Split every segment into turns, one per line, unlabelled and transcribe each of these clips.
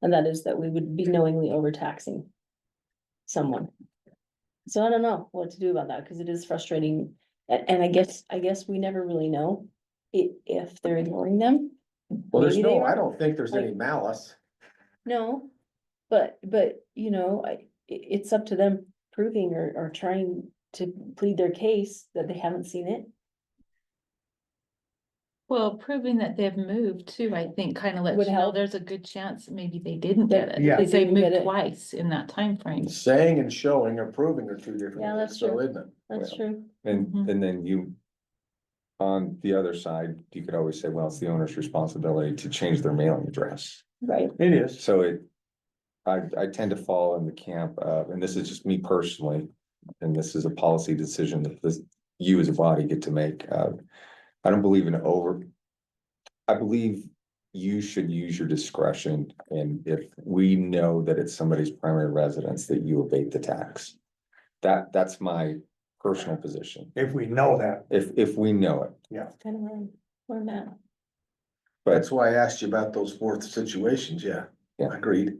And that is that we would be knowingly overtaxing someone. So I don't know what to do about that, because it is frustrating, and, and I guess, I guess we never really know i- if they're ignoring them.
Well, there's
Maybe they
no, I
are.
don't think there's any malice.
No, but, but, you know, I, i- it's up to them proving or, or trying to plead their case that they haven't seen it.
Well, proving that they've moved too, I think kind of lets
Would
you know
help.
there's a good chance that maybe they didn't
That
get it.
Yeah.
Because
they
they
didn't get
moved
it.
twice in that timeframe.
Saying and showing or proving are two different.
Yeah,
things,
that's
so
true.
Isn't it?
That's
Well,
true.
And,
Mhm.
and then you. On the other side, you could always say, well, it's the owner's responsibility to change their mailing address,
Right.
It is.
so it. I, I tend to fall in the camp of, and this is just me personally, and this is a policy decision that this, you as a body get to make, uh. I don't believe in over. I believe you should use your discretion, and if we know that it's somebody's primary residence, that you abate the tax. That, that's my personal position.
If we know that.
If, if we know it,
Kind of where, I'm- where I'm at.
but,
That's why I asked you about those fourth situations, yeah.
Yeah.
Agreed.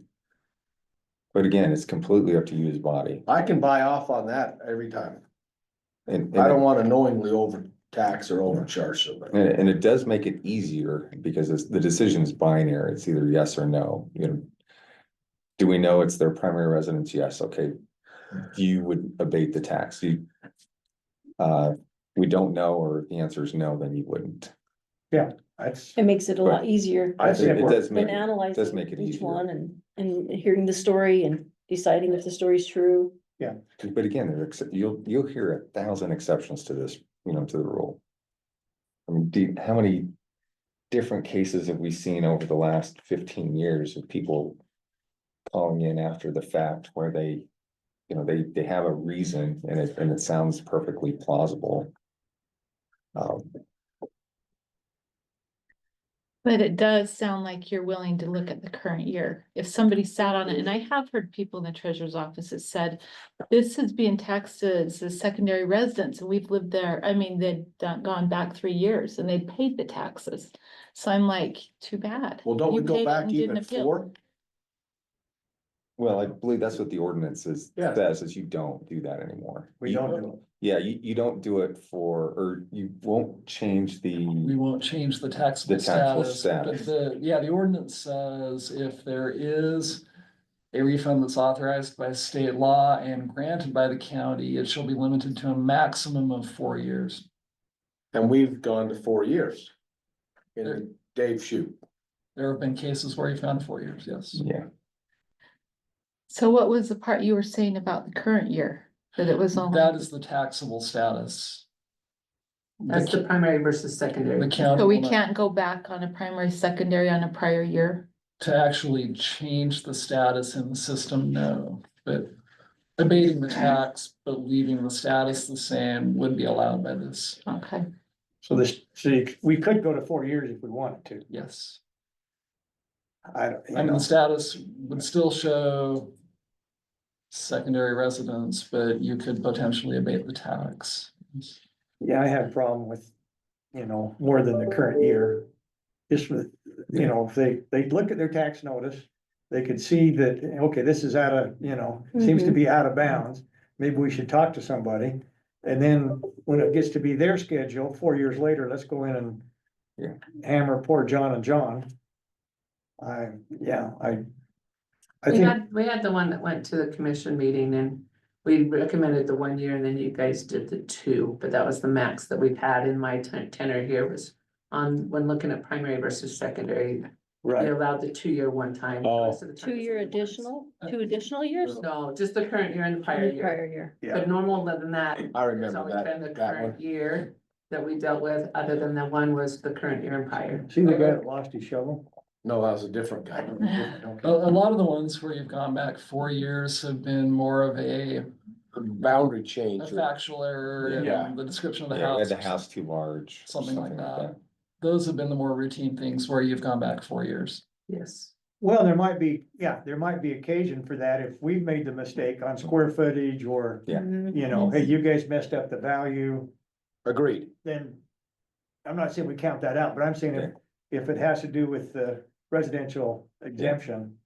but again, it's completely up to you as body.
I can buy off on that every time.
And,
I don't
and,
wanna knowingly overtax or overcharge somebody.
and it- and it does make it easier because it's, the decision is binary. It's either yes or no, you know. Do we know it's their primary residence? Yes, okay. You would abate the tax. You. Uh, we don't know, or the answer is no, then you wouldn't.
That's,
It makes it a lot easier
I
It
see it
it
work.
does make,
than
it-
analyzing
make it
each
easier.
one and, and hearing the story and deciding if the story's true.
but again, there are ex- you'll, you'll hear a thousand exceptions to this, you know, to the rule. I mean, do, you- how many different cases have we seen over the last fifteen years of people calling in after the fact where they, you know, they, they have a reason and it, and it sounds perfectly plausible. Um,
But it does sound like you're willing to look at the current year. If somebody sat on it, and I have heard people in the treasurer's office that said, this is being taxed as a secondary residence and we've lived there. I mean, they'd done- gone back three years and they paid the taxes. So I'm like, too bad.
well, don't we
You paid
go
it
back
and didn't
even
appeal.
four?
well, I believe that's what the ordinance is,
Yeah.
says, is you don't do that anymore.
We
You-
don't do
Yeah, you, you don't do it for, or you won't change the.
We won't change the taxable
The taxable
status, but
status.
the, yeah, the ordinance says if there is. A refund that's authorized by state law and granted by the county, it shall be limited to a maximum of four years.
And we've gone to four years.
There-
In Dave Shoe.
There have been cases where you found four years, yes.
Yeah,
So what was the part you were saying about the current year? That it was only.
That is the taxable status.
That's the primary versus
The
secondary.
county.
So we
will not-
can't go back on a primary, secondary on a prior year?
To actually change the status in the system, no, but. Abating the tax, but leaving the status the same would be allowed by this,
Okay,
So this, so you- we could go to four years if we wanted to.
yes.
I don't, you
I mean,
know,
the status would still show. Secondary residence, but you could potentially abate the tax.
yeah, I have a problem with, you know, more than the current year. Just with, you know, if they, they look at their tax notice, they could see that, okay, this is out of, you know, seems to be out of bounds. Maybe we should talk to somebody. And then when it gets to be their schedule, four years later, let's go in and
Yeah.
hammer poor John and John. I, yeah, I, I
We
think.
had, we had the one that went to the commission meeting and we recommended the one year and then you guys did the two, but that was the max that we've had in my ten- tenure here was on, when looking at primary versus secondary, they allowed the two-year one time. the
Oh.
rest of the time it's
Two-year
only once.
additional, two additional years?
No, just the current year and the prior year.
Prior year.
But normal other than that,
I
there's
remember
always been the
that, that one.
current year that we dealt with, other than the one was the current year and prior.
See the guy that lost his shovel?
No, that was a different guy.
A, a lot of the ones where you've gone back four years have been more of a
Boundary
a
change. or-
factual error
Yeah.
in the description of the
yeah, we
house.
had the house too large. or
Something like that. Those have been the more routine things where you've gone back four years.
Yes.
Well, there might be, yeah, there might be occasion for that if we've made the mistake on square footage or,
Yeah.
Mhm.
you know, hey, you guys messed up the value,
Agreed.
then. I'm not saying we count that out, but I'm saying if, if it has to do with the residential exemption,